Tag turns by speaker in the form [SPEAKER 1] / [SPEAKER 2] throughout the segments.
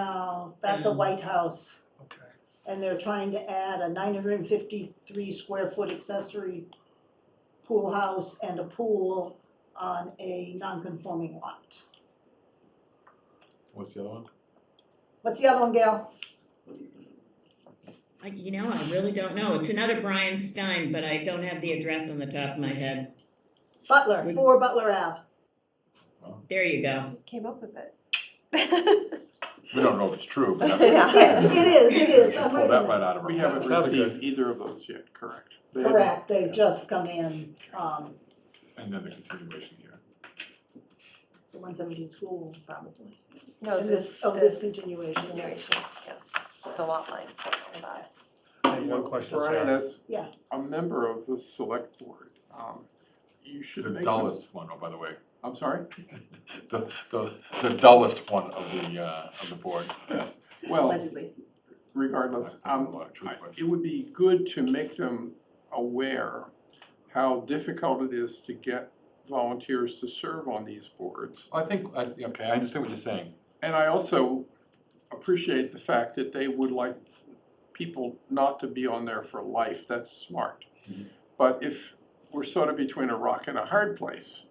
[SPEAKER 1] No, that's a White House,
[SPEAKER 2] Okay.
[SPEAKER 1] and they're trying to add a nine hundred and fifty-three square foot accessory pool house and a pool on a non-conforming lot.
[SPEAKER 3] What's the other one?
[SPEAKER 1] What's the other one, Gail?
[SPEAKER 4] I, you know, I really don't know. It's another Brian Stein, but I don't have the address on the top of my head.
[SPEAKER 1] Butler, four Butler Ave.
[SPEAKER 4] There you go.
[SPEAKER 5] Just came up with it.
[SPEAKER 3] We don't know if it's true, but.
[SPEAKER 5] Yeah.
[SPEAKER 1] It is, it is,
[SPEAKER 3] She
[SPEAKER 1] I'm
[SPEAKER 3] pulled that right
[SPEAKER 1] right.
[SPEAKER 3] out of her.
[SPEAKER 6] We
[SPEAKER 3] mouth.
[SPEAKER 6] haven't
[SPEAKER 2] sounded good.
[SPEAKER 6] received either of those yet, correct? They haven't-
[SPEAKER 1] Correct, they've just come in, um,
[SPEAKER 3] And then the continuation here.
[SPEAKER 1] the one seventeen school probably.
[SPEAKER 5] No,
[SPEAKER 1] And
[SPEAKER 5] Oh, this,
[SPEAKER 1] Of this
[SPEAKER 5] this
[SPEAKER 1] continuation,
[SPEAKER 5] continuation, yes, the lot lines, I don't know that.
[SPEAKER 2] Hey, One question,
[SPEAKER 6] Brian,
[SPEAKER 2] Sarah.
[SPEAKER 6] as
[SPEAKER 1] Yeah.
[SPEAKER 6] a member of the select board, um, you should
[SPEAKER 3] The
[SPEAKER 6] make. a-
[SPEAKER 3] dullest one, oh, by the way,
[SPEAKER 6] I'm sorry?
[SPEAKER 3] the, the, the dullest one of the, uh, of the board.
[SPEAKER 6] Well,
[SPEAKER 5] Allegedly.
[SPEAKER 6] regardless,
[SPEAKER 3] There's a
[SPEAKER 6] um,
[SPEAKER 3] lot of truth
[SPEAKER 6] I-
[SPEAKER 3] to it.
[SPEAKER 6] It would be good to make them aware how difficult it is to get volunteers to serve on these boards.
[SPEAKER 3] I think, I, okay, I understand what you're saying.
[SPEAKER 6] And I also appreciate the fact that they would like people not to be on there for life, that's smart.
[SPEAKER 3] Mhm.
[SPEAKER 6] But if we're sort of between a rock and a hard place,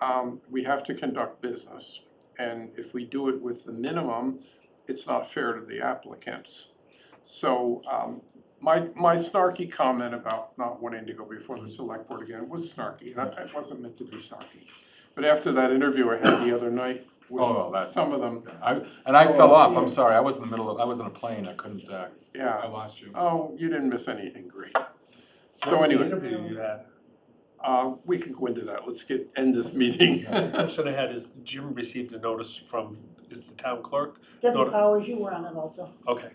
[SPEAKER 6] um, we have to conduct business. And if we do it with the minimum, it's not fair to the applicants. So, um, my, my snarky comment about not wanting to go before the select board again was snarky, and I- it wasn't meant to be snarky. But after that interview I had the other night
[SPEAKER 3] Oh,
[SPEAKER 6] with
[SPEAKER 3] that's-
[SPEAKER 6] some of them,
[SPEAKER 3] I, and I fell off, I'm sorry, I was in the middle of, I was in a plane, I couldn't, uh, I
[SPEAKER 6] yeah,
[SPEAKER 3] lost you.
[SPEAKER 6] oh, you didn't miss anything great.
[SPEAKER 2] What
[SPEAKER 6] So
[SPEAKER 2] was the
[SPEAKER 6] anyway,
[SPEAKER 2] Interview you had.
[SPEAKER 6] uh, we can go into that, let's get, end this meeting.
[SPEAKER 2] The Question I had is Jim received a notice from, is the town clerk?
[SPEAKER 1] Debbie
[SPEAKER 2] Not-
[SPEAKER 1] Powers, you were on it also.
[SPEAKER 2] Okay,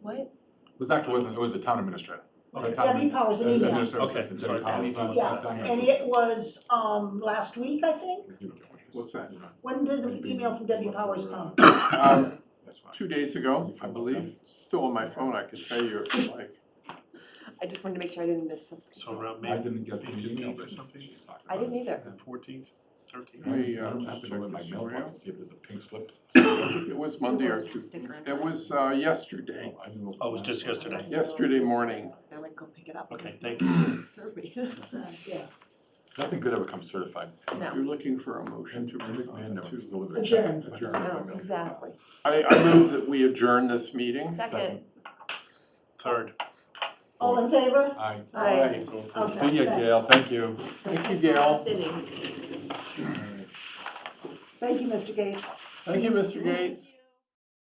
[SPEAKER 5] What?
[SPEAKER 3] It was actually, wasn't, it was the town administrator. The
[SPEAKER 2] okay.
[SPEAKER 3] town
[SPEAKER 1] Debbie Powers, an
[SPEAKER 3] admin-
[SPEAKER 1] email.
[SPEAKER 3] Administrative
[SPEAKER 2] Okay,
[SPEAKER 3] assistant,
[SPEAKER 2] sorry,
[SPEAKER 3] Debbie Powers.
[SPEAKER 2] Debbie
[SPEAKER 1] Yeah,
[SPEAKER 3] Diane.
[SPEAKER 1] And it was, um, last week, I think?
[SPEAKER 3] You know what it is.
[SPEAKER 6] What's that?
[SPEAKER 3] You know,
[SPEAKER 1] When did the
[SPEAKER 3] maybe
[SPEAKER 1] email from Debbie
[SPEAKER 3] look
[SPEAKER 1] Powers
[SPEAKER 3] for,
[SPEAKER 1] come?
[SPEAKER 3] uh,
[SPEAKER 6] Um,
[SPEAKER 3] That's fine.
[SPEAKER 6] Two days ago, I believe, still on my phone, I can tell you if you like.
[SPEAKER 5] I just wanted to make sure I didn't miss something.
[SPEAKER 2] So around
[SPEAKER 3] I
[SPEAKER 2] May
[SPEAKER 3] didn't get the
[SPEAKER 2] May
[SPEAKER 3] email
[SPEAKER 2] 15th or
[SPEAKER 3] that
[SPEAKER 2] something?
[SPEAKER 3] she's talking about.
[SPEAKER 5] I didn't either.
[SPEAKER 2] Fourteenth, thirteenth?
[SPEAKER 3] I
[SPEAKER 6] Maybe,
[SPEAKER 3] don't- I
[SPEAKER 6] uh,
[SPEAKER 3] don't
[SPEAKER 6] just
[SPEAKER 3] have to
[SPEAKER 6] check
[SPEAKER 3] go in my
[SPEAKER 6] this
[SPEAKER 3] mailbox
[SPEAKER 6] email.
[SPEAKER 3] to see if there's a pink slip.
[SPEAKER 6] It was Monday or
[SPEAKER 5] was a
[SPEAKER 6] Tuesday,
[SPEAKER 5] sticker on
[SPEAKER 6] it
[SPEAKER 5] top.
[SPEAKER 6] was uh, yesterday,
[SPEAKER 3] Oh, I didn't know-
[SPEAKER 2] Oh, it was just yesterday.
[SPEAKER 6] yesterday morning.
[SPEAKER 5] They're like, go pick it up.
[SPEAKER 2] Okay, thank you.
[SPEAKER 5] Serve me.
[SPEAKER 1] Uh, Yeah.
[SPEAKER 3] Nothing good ever comes certified.
[SPEAKER 6] If
[SPEAKER 5] No,
[SPEAKER 6] You're looking for a motion to
[SPEAKER 3] And Dick Mann
[SPEAKER 6] resign
[SPEAKER 3] never
[SPEAKER 6] to.
[SPEAKER 3] delivered a check.
[SPEAKER 1] Adjourn.
[SPEAKER 3] Adjourn.
[SPEAKER 5] no, Oh, exactly.
[SPEAKER 6] I, I move that we adjourn this meeting.
[SPEAKER 5] Second,
[SPEAKER 2] Third.
[SPEAKER 1] All in favor?
[SPEAKER 3] Aye.
[SPEAKER 5] I.
[SPEAKER 1] Okay,
[SPEAKER 3] See you,
[SPEAKER 1] thanks.
[SPEAKER 3] Gail, thank you.
[SPEAKER 6] Thank you, Gail.
[SPEAKER 5] Sydney.
[SPEAKER 1] Thank you, Mr. Gates.
[SPEAKER 6] Thank you, Mr. Gates.